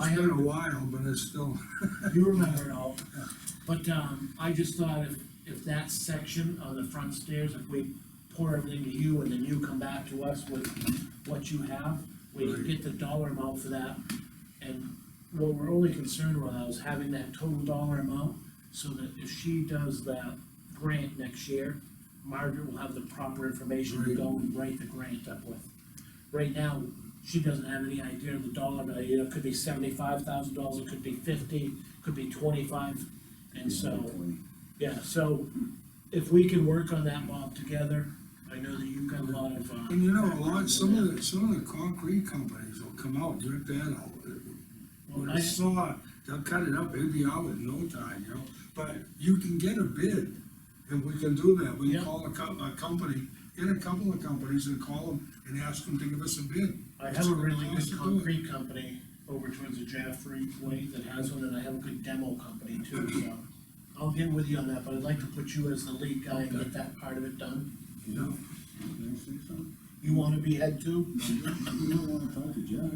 I haven't a while, but it's still, You remember it all, but, um, I just thought if, if that section on the front stairs, if we pour everything to you and then you come back to us with what you have, we can Right. get the dollar amount for that. And what we're only concerned with is having that total dollar amount, so that if she does that grant next year, Margaret will have the proper information to Right. go and write the grant up with. Right now, she doesn't have any idea of the dollar value, it could be seventy-five thousand dollars, it could be fifty, could be twenty-five, and so, yeah, so if we can work on that, Bob, together, I know that you've got a lot of, uh, and you know, a lot, some of the, some of the concrete companies will come out, rip that out. well, With I- a saw, they'll cut it up, it'll be out in no time, you know, but you can get a bid, and we can do that, we Yeah. can call a co- a company, get a couple of companies and call them and ask them to give us a bid. I have a really What's good it gonna cost to do it? concrete company over towards the Jaffrey Way that has one, and I have a good demo company too, so. I'll get with you on that, but I'd like to put you as the lead guy and get that part of it done. Yeah. Can I say something? You wanna be head too? You don't wanna talk to Jeff,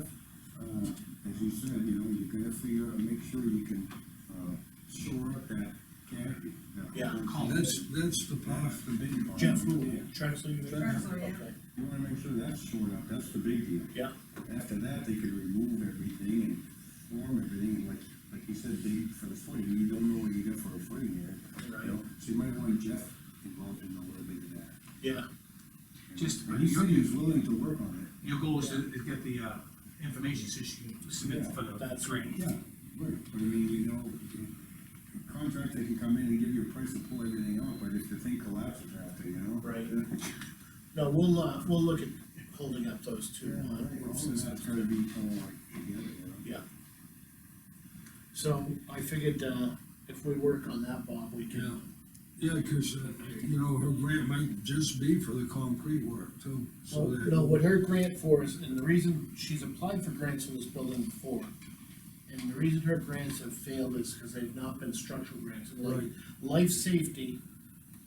uh, as you said, you know, you gotta figure, out- make sure you can, uh, shore up that canopy. that- Yeah. That's, that's the path, the big part. Jeff, who, Yeah. Trexler? you mean? Trexler, yeah. Okay, You wanna make sure that's shored up, that's the big deal. Yeah, After that, they can remove everything and form everything, and like, like you said, dig for the footing, you don't know what you got for a footing there. Right. You know, So you might want Jeff involved in a little bit of that. yeah, Just- And he said he was willing to work on it. Your goal is to to get the, uh, information so she can submit for the That's- grant. Yeah, right, but I mean, you know, the contractor can come in and give you a price and pull everything out, but if the thing collapses after, you know? Right. Yeah, no, we'll, uh, we'll look at holding up those two. uh, right, all since- that's gotta be kind of like together, you know? Yeah. So I figured, uh, if we work on that, Bob, we Yeah. can, Yeah, cause, uh, you know, her grant might just be for the concrete work too, so Well, that. no, what her grant for is, and the reason she's applied for grants in this building before, and the reason her grants have failed is because they've not been structural grants. And like, Right. Life safety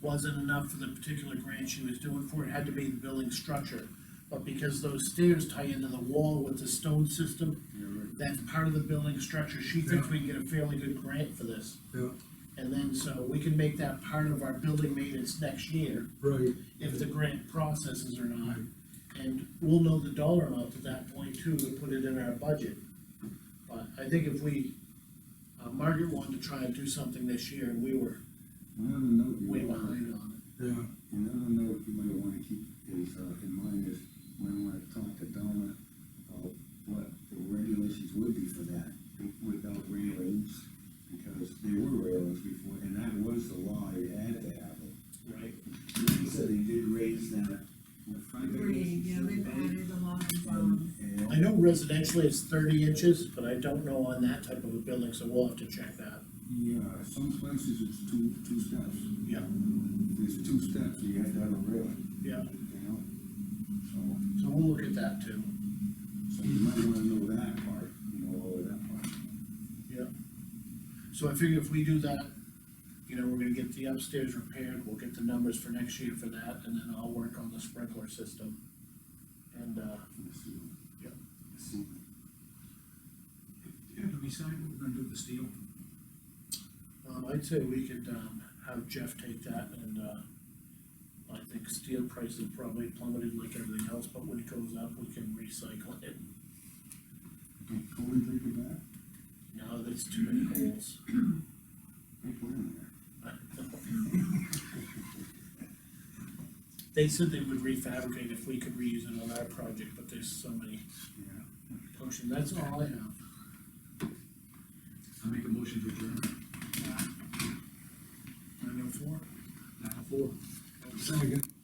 wasn't enough for the particular grant she was doing for, it had to be the building structure. But because those stairs tie into the wall with the stone system, Yeah, right. that's part of the building structure, she thinks we can get a fairly good grant for this. Yeah, And then, so we can make that part of our building maintenance next year right, if the grant processes or not. And we'll know the dollar amount at that point too, to put it in our budget. But I think if we, uh, Margaret wanted to try and do something this year, and we were Another note you way might wanna, behind on yeah, another note you might wanna keep is, uh, in mind is, you might wanna talk to Donna about what the regulations would be for that, without railings, because they were railings before, and that was the law, you had to have them. it, right? He said they did raise that. what, five Three, inches? yeah, they've added a lot of, um, And- I know residentially it's thirty inches, but I don't know on that type of a building, so we'll have to check that. Yeah, some places it's two, two steps. Yeah. There's two steps, you have to have a rail, Yeah, you know? So, so we'll look at that too. so you might wanna know that part, you know, all of that part. Yeah. So I figure if we do that, you know, we're gonna get the upstairs repaired, we'll get the numbers for next year for that, and then I'll work on the sprinkler system. And, uh, Yeah. Yeah, to be signed, we're gonna do the steel. um, I'd say we could, um, have Jeff take that and, uh, I think steel prices probably plummeted like everything else, but when it goes up, we can recycle it. Can Colin take it back? Now there's too many holes. Hey, put it in there. They said they would refabricate if we could reuse it on our project, but there's so many Yeah. potions, that's all I have. I make a motion to adjourn. Nine oh four? Nine oh four. second.